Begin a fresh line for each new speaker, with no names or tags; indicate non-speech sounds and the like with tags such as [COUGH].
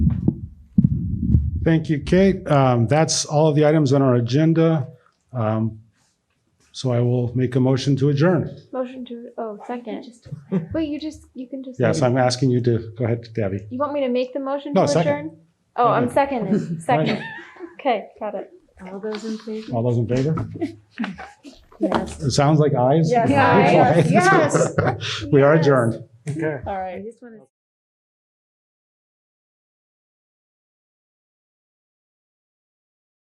Thank you, Kate. Um, That's all of the items on our agenda. Um, So I will make a motion to adjourn.
Motion to, oh, second. Wait, you just, you can just.
Yes, I'm asking you to, go ahead, Debbie.
You want me to make the motion
No,
to
second.
adjourn? Oh, I'm
[LAUGHS]
seconding, second. [LAUGHS]
Right.
Okay, got it.
All those in favor?
All those in favor?
Yes.
[LAUGHS] It sounds like ayes.
Yes.
Okay.
Yes.
[LAUGHS] We are adjourned.
All right. I just want to